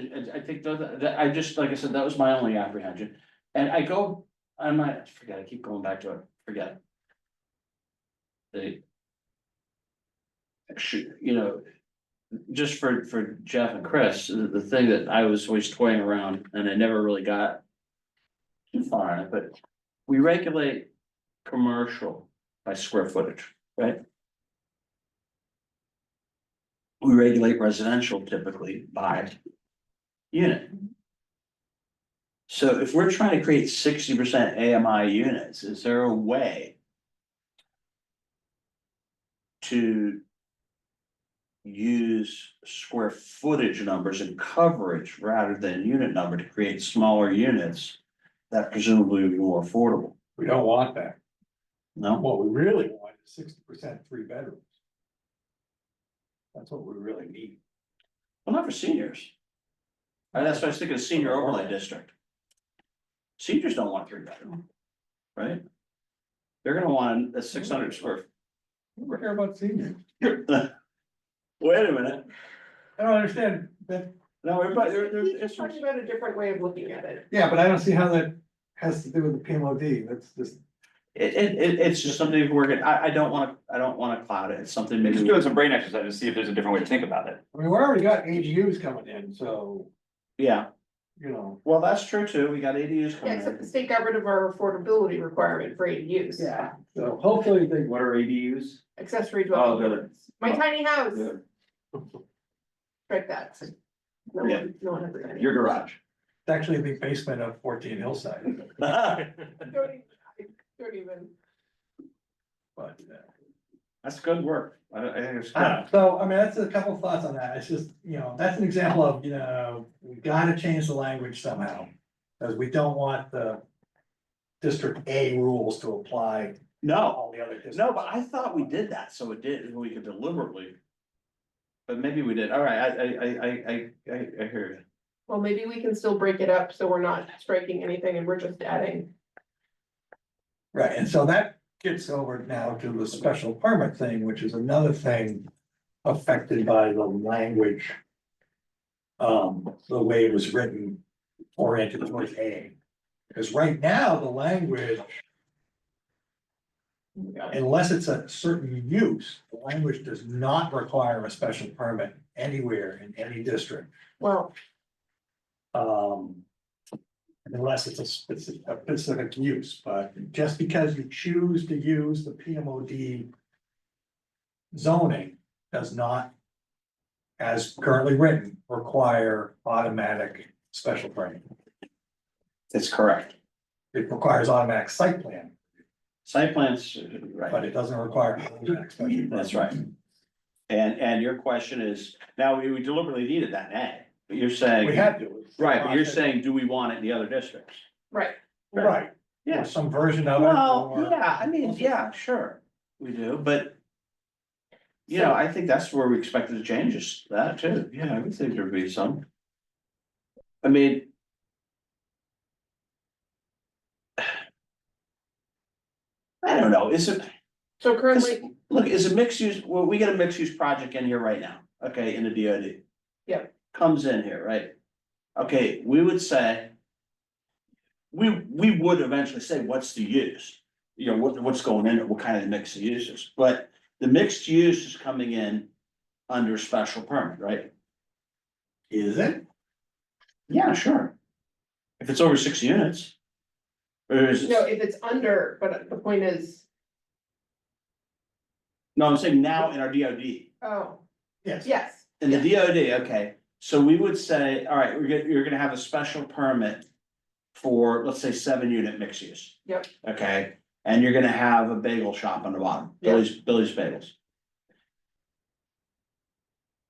I, I think that, that, I just, like I said, that was my only apprehension. And I go, I might, forget, I keep going back to it, forget. They. Shoot, you know. Just for, for Jeff and Chris, the, the thing that I was always toying around and I never really got. Too far in it, but we regulate commercial by square footage, right? We regulate residential typically by unit. So if we're trying to create sixty percent AMI units, is there a way to use square footage numbers and coverage rather than unit number to create smaller units that presumably would be more affordable? We don't want that. No, What we really want is sixty percent three bedrooms. That's what we really need. well, not for seniors. And that's why I was thinking of senior overlay district. Seniors don't want three bedroom, right? They're gonna want a six hundred square. We don't care about seniors. Wait a minute, I don't understand that. no, everybody, there, there's, He's talking about a different way of looking at it. Yeah, but I don't see how that has to do with the PMOD. That's just. It, it, it, it's just something we're gonna, I, I don't wanna, I don't wanna cloud it, it's something Just maybe, doing some brain exercise to see if there's a different way to think about it. I mean, we already got AGUs coming in, so, yeah, you know. well, that's true too, we got ADUs Yeah, coming except the in. state got rid of our affordability requirement for ADUs. So hopefully they. What are ADUs? Accessory Oh, dwelling good. units. My tiny house, Good. strike that. No Yeah. one, no one has any. Your garage. It's actually the basement of fourteen Hillside, Don't even- I don't even, but. uh, That's good work, I, I think it's I don't good, know. So, I mean, that's a couple thoughts on that, it's just, you know, that's an example of, you know, we gotta change the language somehow. Cause we don't want the District A rules to apply to no, all the other districts. no, but I thought we did that, so it did, we could deliberately. But maybe we did, all right, I, I, I, I, I, I hear you, well, maybe we can still break it up, so we're not striking anything and we're just adding. Right, and so that gets over now to the special permit thing, which is another thing affected by the language. Um, the way it was written oriented towards A. Because right now, the language unless it's a certain use, the language does not require a special permit anywhere in any district. Well, Um. Unless it's a specific, a specific use, but just because you choose to use the PMOD. Zoning does not. As currently written, require automatic special permit. it's correct, It requires automatic site plan, site plans, uh, but right, it doesn't require. automatic special permit. that's right. And, and your question is, now, we we deliberately needed that, eh, but you're saying. We had to. Right, but you're saying, do we want it in the other districts? right, Right. or Yeah. Some version of it. Well, or- yeah, I mean, yeah, sure, we do, but. You know, I think that's where we expected to change is that too, yeah, I would think there'd be some. I mean. I don't know, is it, so cause, currently, look, is a mixed use, well, we got a mixed use project in here right now, okay, in the DOD. Yep. Comes in here, right? Okay, we would say. We, we would eventually say, what's the use? You know, what, what's going in, it, what kind of mixed uses, but the mixed use is coming in under special permit, right? Is it? Yeah, sure. If it's over six units. Or is, no, if it's under, but the point is, no, I'm saying now in our DOD. oh, Yes. yes, In the DOD, okay, so we would say, all right, we're gonna, you're gonna have a special permit for, let's say, seven unit mixed use. Yep. Okay, and you're gonna have a bagel shop on the bottom, Yep. Billy's, Billy's Bagels.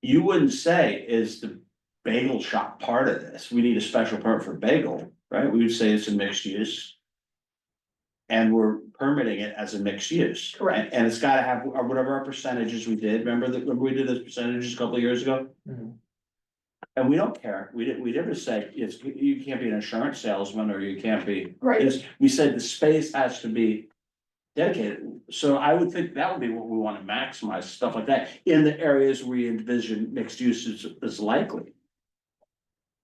You wouldn't say, is the bagel shop part of this? We need a special permit for bagel, right? We would say it's a mixed use. And we're permitting it as a mixed use. Correct. And- And it's gotta have uh, whatever our percentages we did, remember that, remember we did those percentages a couple of years ago? Mhm. And we don't care, we didn't, we never said, it's, you can't be an insurance salesman, or you can't be, right, it's- we said the space has to be. Dedicated, so I would think that would be what we wanna maximize, stuff like that, in the areas we envision mixed uses is likely.